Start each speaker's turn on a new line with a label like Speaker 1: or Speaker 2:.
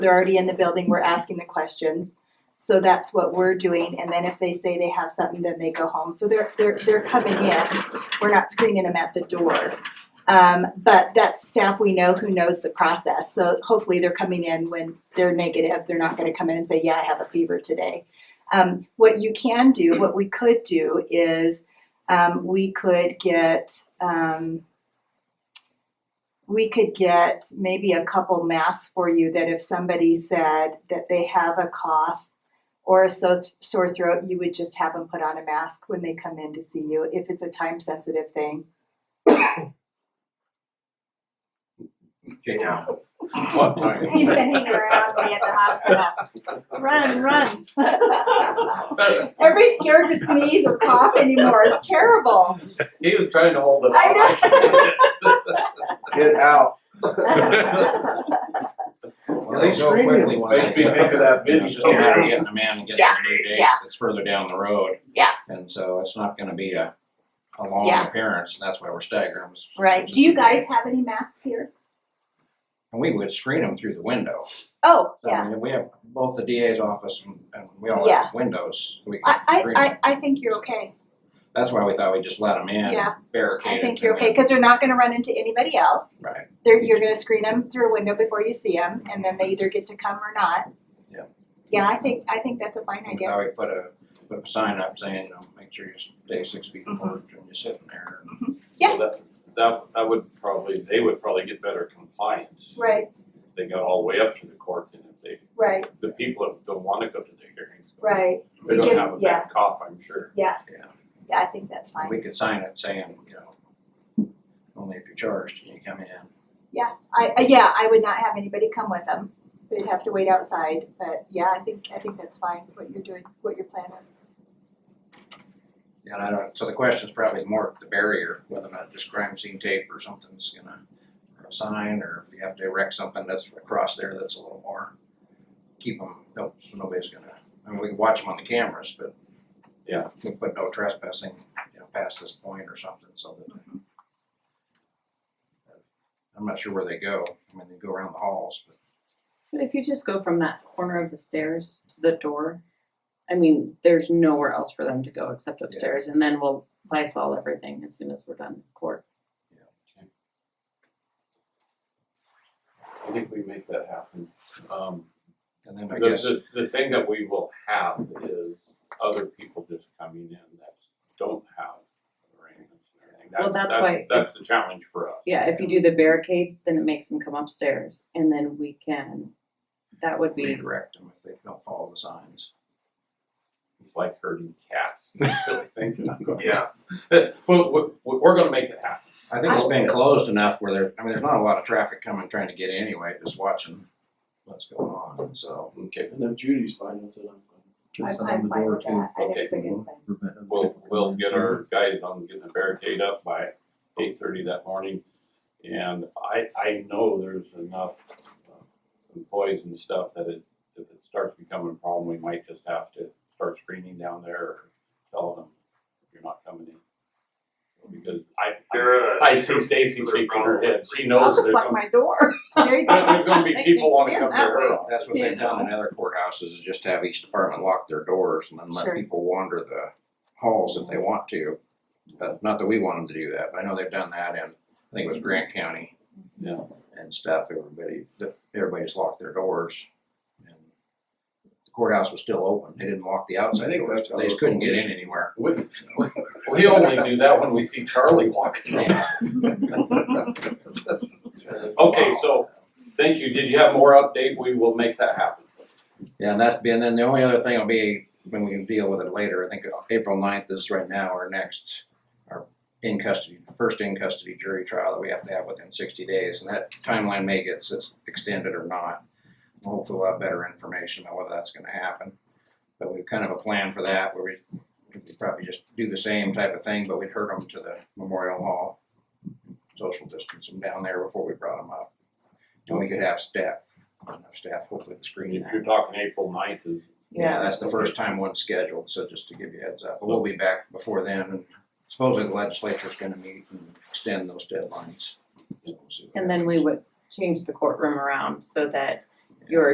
Speaker 1: They're already in the building, we're asking the questions. So that's what we're doing, and then if they say they have something, then they go home. So they're, they're, they're coming in. We're not screening them at the door. Um, but that's staff we know who knows the process, so hopefully they're coming in when they're negative, they're not gonna come in and say, yeah, I have a fever today. Um, what you can do, what we could do is, um, we could get, um, we could get maybe a couple masks for you that if somebody said that they have a cough or a so- sore throat, you would just have them put on a mask when they come in to see you, if it's a time sensitive thing.
Speaker 2: Yeah. What time?
Speaker 3: He's been hanging around me at the hospital. Run, run.
Speaker 1: Everybody's scared to sneeze or cough anymore. It's terrible.
Speaker 2: He was trying to hold it.
Speaker 1: I
Speaker 4: Get out.
Speaker 2: They scream really Makes me think of that
Speaker 5: You
Speaker 2: video.
Speaker 5: know, It's still matter of getting them in and getting
Speaker 1: Yeah,
Speaker 5: a new date
Speaker 1: yeah.
Speaker 5: that's further down the road.
Speaker 1: Yeah.
Speaker 5: And so it's not gonna be a, a long
Speaker 1: Yeah.
Speaker 5: appearance, and that's why we're staggering them.
Speaker 1: Right. Do you guys have any masks here?
Speaker 5: And we would screen them through the window.
Speaker 1: Oh, yeah.
Speaker 5: I mean, we have both the DA's office and, and we all
Speaker 1: Yeah.
Speaker 5: have windows, we
Speaker 1: I,
Speaker 5: can screen them.
Speaker 1: I, I, I think you're okay.
Speaker 5: That's why we thought we'd just let them in,
Speaker 1: Yeah.
Speaker 5: barricade
Speaker 1: I
Speaker 5: it.
Speaker 1: think you're
Speaker 5: and
Speaker 1: okay,
Speaker 5: then-
Speaker 1: because they're not gonna run into anybody else.
Speaker 5: Right,
Speaker 1: They're, you're gonna screen them through a window before you see them, and then they either get to come or not.
Speaker 5: Yeah.
Speaker 1: Yeah, I think, I think that's a fine
Speaker 5: we
Speaker 1: idea.
Speaker 5: thought we put a, put a sign up saying, you know, make sure you stay six feet
Speaker 1: Mhm.
Speaker 5: apart when you're sitting there.
Speaker 1: Yeah.
Speaker 2: That, that, that would probably, they would probably get better compliance.
Speaker 1: Right,
Speaker 2: if They got all the way up to the court and if they,
Speaker 1: right,
Speaker 2: the people that don't wanna go to the hearings.
Speaker 1: right.
Speaker 2: They
Speaker 1: It
Speaker 2: don't
Speaker 1: gives-
Speaker 2: have a
Speaker 1: yeah.
Speaker 2: bad cough, I'm sure.
Speaker 1: Yeah, I think that's fine.
Speaker 5: We could sign it saying, you know, only if you're charged can you come in.
Speaker 1: I, I, yeah, I would not have anybody come with them. They'd have to wait outside, but yeah, I think, I think that's fine, what you're doing, what your plan is.
Speaker 5: And I don't, so the question's probably more the barrier, whether or not this crime scene tape or something's gonna, or a sign, or if you have to erect something that's across there that's a little more, keep them, no, so nobody's gonna, I mean, we can watch them on the cameras, but.
Speaker 2: Yeah.
Speaker 5: We can put no trespassing, you know, past this point or something, so that.
Speaker 2: Mm-hmm.
Speaker 5: I'm not sure where they go, I mean, they go around the halls, but
Speaker 6: But if you just go from that corner of the stairs to the door, I mean, there's nowhere else for them to go except upstairs, and then we'll Lysol everything as soon as we're done with court.
Speaker 2: I think we make that happen. Um,
Speaker 5: and then I
Speaker 2: the,
Speaker 5: guess,
Speaker 2: the, the thing that we will have is other people just coming in that don't have arrangements and everything.
Speaker 6: Well, that's why-
Speaker 2: That's the challenge for us.
Speaker 6: Yeah, if you do the barricade, then it makes them come upstairs, and then we can, that would be,
Speaker 5: redirect them if they don't follow the signs.
Speaker 2: It's like herding cats. Yeah. But we're, we're gonna make it happen.
Speaker 5: I think it's
Speaker 2: I-
Speaker 5: been closed enough where there, I mean, there's not a lot of traffic coming, trying to get in anyway, just watching what's going on, so.
Speaker 2: Okay.
Speaker 4: And if Judy's fine with it, I'm
Speaker 1: I'm,
Speaker 4: fine.
Speaker 1: I'm fine with that, I
Speaker 2: Okay.
Speaker 1: think it's a good plan.
Speaker 2: We'll, we'll get our guys on getting the barricade up by eight thirty that morning. And I, I know there's enough uh, employees and stuff that it, if it starts becoming a problem, we might just have to start screening down there or tell them you're not coming in. Because I,
Speaker 7: They're, uh,
Speaker 2: I see Stacy shaking her head. She knows there's gonna,
Speaker 6: my door.
Speaker 1: There you go.
Speaker 2: there's gonna be people wanna come to her. office.
Speaker 5: That's what they've done in other courthouses, is just have each department lock their doors and then let
Speaker 1: Sure.
Speaker 5: people wander the halls if they want to. But not that we want them to do that, but I know they've done that in, I think it was Grant County.
Speaker 2: Yeah.
Speaker 5: And stuff, everybody, the- everybody's locked their doors. and The courthouse was still open, they didn't lock the outside
Speaker 4: think
Speaker 5: doors,
Speaker 4: that's
Speaker 5: they just
Speaker 4: how-
Speaker 5: couldn't get in anywhere.
Speaker 2: We, we- we only do that when we see Charlie walking. around. Okay, so, thank you, did you have more update, we will make that happen.
Speaker 5: Yeah, and that's been, then the only other thing will be, when we can deal with it later, I think April 9th is right now our next, our in custody, first in custody jury trial that we have to have within sixty days, and that timeline may get s- extended or not. Hopefully we'll have better information on whether that's gonna happen, but we've kind of a plan for that, where we, we'd probably just do the same type of thing, but we'd herd them to the Memorial Hall. Social distance them down there before we brought them up, and we could have staff, enough staff hopefully to screen
Speaker 2: If
Speaker 5: that.
Speaker 2: you're talking April ninth is.
Speaker 5: Yeah, that's the first time one's scheduled, so just to give you a heads up, but we'll be back before then, and supposedly the legislature's gonna meet and extend those deadlines. So we'll see what
Speaker 6: And then we would change the courtroom around so that your